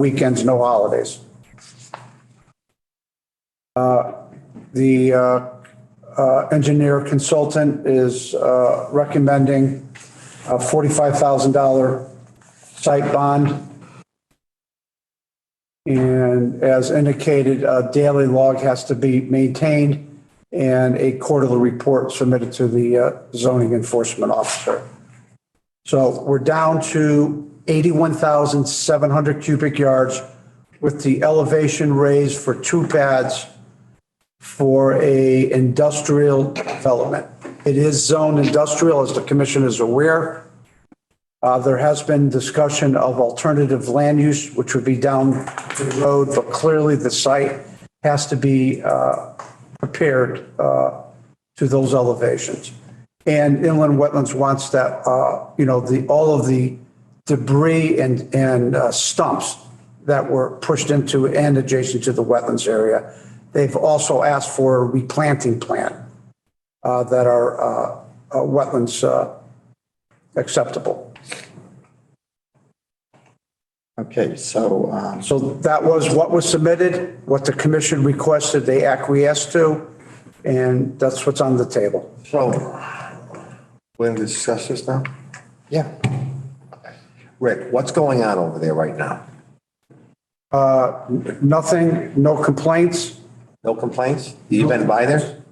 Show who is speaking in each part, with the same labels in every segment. Speaker 1: weekends, no holidays. Uh, The uh, uh, engineer consultant is uh, recommending a $45,000 site bond. And as indicated, a daily log has to be maintained and a quarterly report submitted to the uh, zoning enforcement officer. So we're down to 81,700 cubic yards with the elevation raised for two pads for a industrial development. It is zoned industrial, as the commission is aware. Uh, There has been discussion of alternative land use, which would be down the road, but clearly the site has to be uh, prepared uh, to those elevations. And inland wetlands wants that, uh, you know, the, all of the debris and, and uh, stumps that were pushed into and adjacent to the wetlands area. They've also asked for a replanting plan uh, that are uh, uh, wetlands uh, acceptable.
Speaker 2: Okay, so, um,
Speaker 1: So that was what was submitted, what the commission requested, they acquiesced to, and that's what's on the table.
Speaker 3: So, we're going to discuss this now?
Speaker 2: yeah,
Speaker 3: Rick, what's going on over there right now?
Speaker 1: Uh, Nothing, no complaints,
Speaker 3: No complaints? You been by there?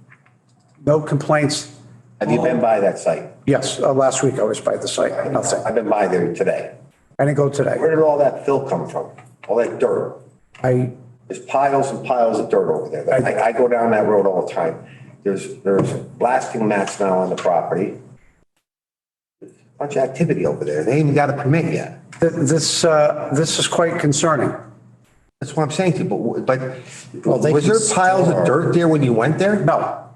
Speaker 1: no complaints.
Speaker 3: Have you been by that site?
Speaker 1: Yes, uh, last week I was by the site, nothing.
Speaker 3: I've been by there today.
Speaker 1: I didn't go today.
Speaker 3: Where did all that fill come from? All that dirt?
Speaker 1: I,
Speaker 3: There's piles and piles of dirt over there. I, I go down that road all the time. There's, there's blasting mats now on the property. Bunch of activity over there. They ain't even got a permit yet.
Speaker 1: th- this, uh, this is quite concerning.
Speaker 3: That's what I'm saying to you, but, but
Speaker 2: they
Speaker 3: was
Speaker 2: can
Speaker 3: there piles of dirt there when you went there?
Speaker 1: No,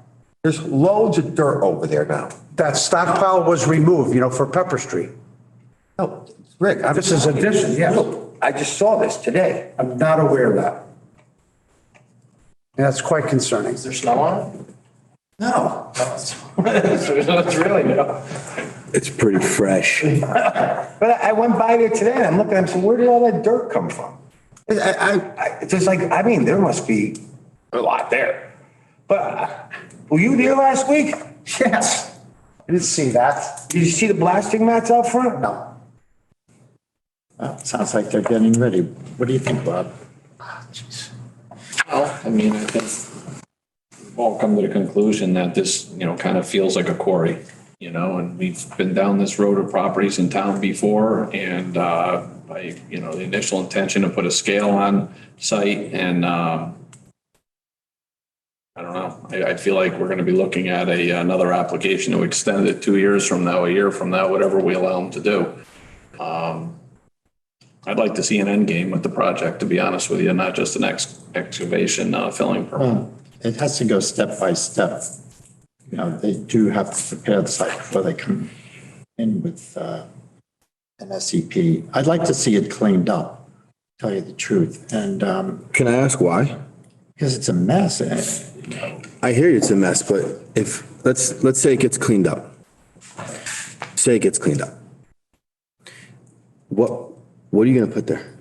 Speaker 3: There's loads of dirt over there now.
Speaker 1: that stockpile was removed, you know, for Pepper Street.
Speaker 3: No, Rick, I'm.
Speaker 1: This is addition, yes.
Speaker 3: Look, I just saw this today.
Speaker 1: I'm not aware of that. And that's quite concerning.
Speaker 4: there snow on it?
Speaker 3: No.
Speaker 4: It's really no.
Speaker 5: It's pretty fresh.
Speaker 3: But I I went by there today and I'm looking, I'm saying, where did all that dirt come from? I, I, I- it's just like, I mean, there must be a lot there. But uh, were you there last week?
Speaker 1: Yes. I didn't see that.
Speaker 3: Did you see the blasting mats out front?
Speaker 1: No.
Speaker 2: uh, sounds like they're getting ready. What do you think, Bob?
Speaker 4: Well, I mean, I think we've all come to the conclusion that this, you know, kind of feels like a quarry, you know, and we've been down this road of properties in town before and, uh, I, you know, the initial intention to put a scale on site and, um, I don't know, I, I feel like we're gonna be looking at a, another application to extend it two years from now, a year from now, whatever we allow them to do. I'd like to see an end game with the project, to be honest with you, not just an ex- excavation, uh, filling permit.
Speaker 2: It has to go step by step. You know, they do have to prepare the site before they come in with uh, an SEP. I'd like to see it cleaned up, tell you the truth, and, um,
Speaker 5: Can I ask why?
Speaker 2: because it's a mess. eh, And
Speaker 5: I hear it's a mess, but if, let's, let's say it gets cleaned up. Say it gets cleaned up. What, what are you gonna put there?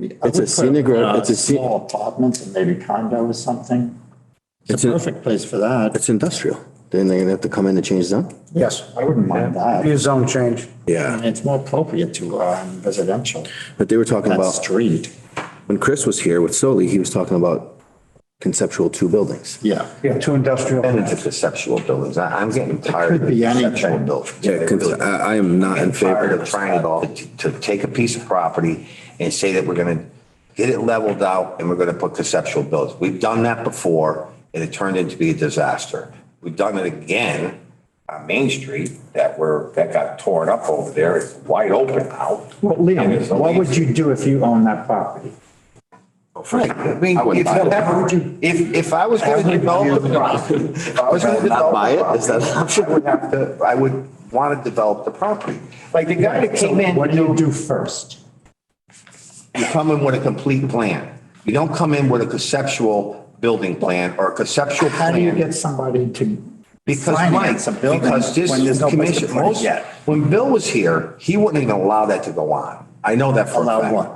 Speaker 2: It's
Speaker 5: scenic road, it's a sce-
Speaker 2: Small apartments and maybe condo or something. It's
Speaker 5: It's
Speaker 2: a
Speaker 5: a-
Speaker 2: perfect place for that.
Speaker 5: It's industrial. Then they're gonna have to come in and change that?
Speaker 1: Yes.
Speaker 2: I wouldn't mind that.
Speaker 1: Be a zone change.
Speaker 2: And
Speaker 5: Yeah,
Speaker 2: it's more appropriate to um, residential,
Speaker 5: but they were talking
Speaker 2: that
Speaker 5: about,
Speaker 2: street.
Speaker 5: when Chris was here with Soli, he was talking about conceptual two buildings.
Speaker 2: Yeah,
Speaker 1: Yeah, two industrial.
Speaker 3: And into conceptual buildings. I, I'm getting tired
Speaker 2: could
Speaker 3: of
Speaker 2: be
Speaker 3: conceptual
Speaker 2: anything.
Speaker 3: buildings.
Speaker 5: Conce- I, I am not in
Speaker 3: I'm tired
Speaker 5: favor.
Speaker 3: of trying it all, to, to take a piece of property and say that we're gonna get it leveled out and we're gonna put conceptual buildings. We've done that before and it turned into be a disaster. We've done it again on Main Street that were, that got torn up over there. It's wide open now.
Speaker 2: Well,
Speaker 3: And there's
Speaker 2: Liam,
Speaker 3: no
Speaker 2: what
Speaker 3: leaves.
Speaker 2: would you do if you owned that property?
Speaker 3: Right, I mean,
Speaker 5: I wouldn't
Speaker 3: if,
Speaker 5: buy it.
Speaker 3: that would you- if, if I was gonna develop the property, if I was gonna
Speaker 5: Not
Speaker 3: develop
Speaker 5: buy
Speaker 3: the
Speaker 5: it? Is that
Speaker 3: property,
Speaker 5: an
Speaker 3: I would have to, I would wanna develop the property. Like the guy that came in.
Speaker 2: What do you do first?
Speaker 3: You come in with a complete plan. You don't come in with a conceptual building plan or a conceptual
Speaker 2: How do you
Speaker 3: plan.
Speaker 2: get somebody to?
Speaker 3: Because Mike,
Speaker 2: finance a building
Speaker 3: because
Speaker 2: when there's
Speaker 3: this
Speaker 2: no place to
Speaker 3: commission,
Speaker 2: put it
Speaker 3: most,
Speaker 2: yet?
Speaker 3: when Bill was here, he wouldn't even allow that to go on. I know that for a
Speaker 2: Allow
Speaker 3: fact.
Speaker 2: what?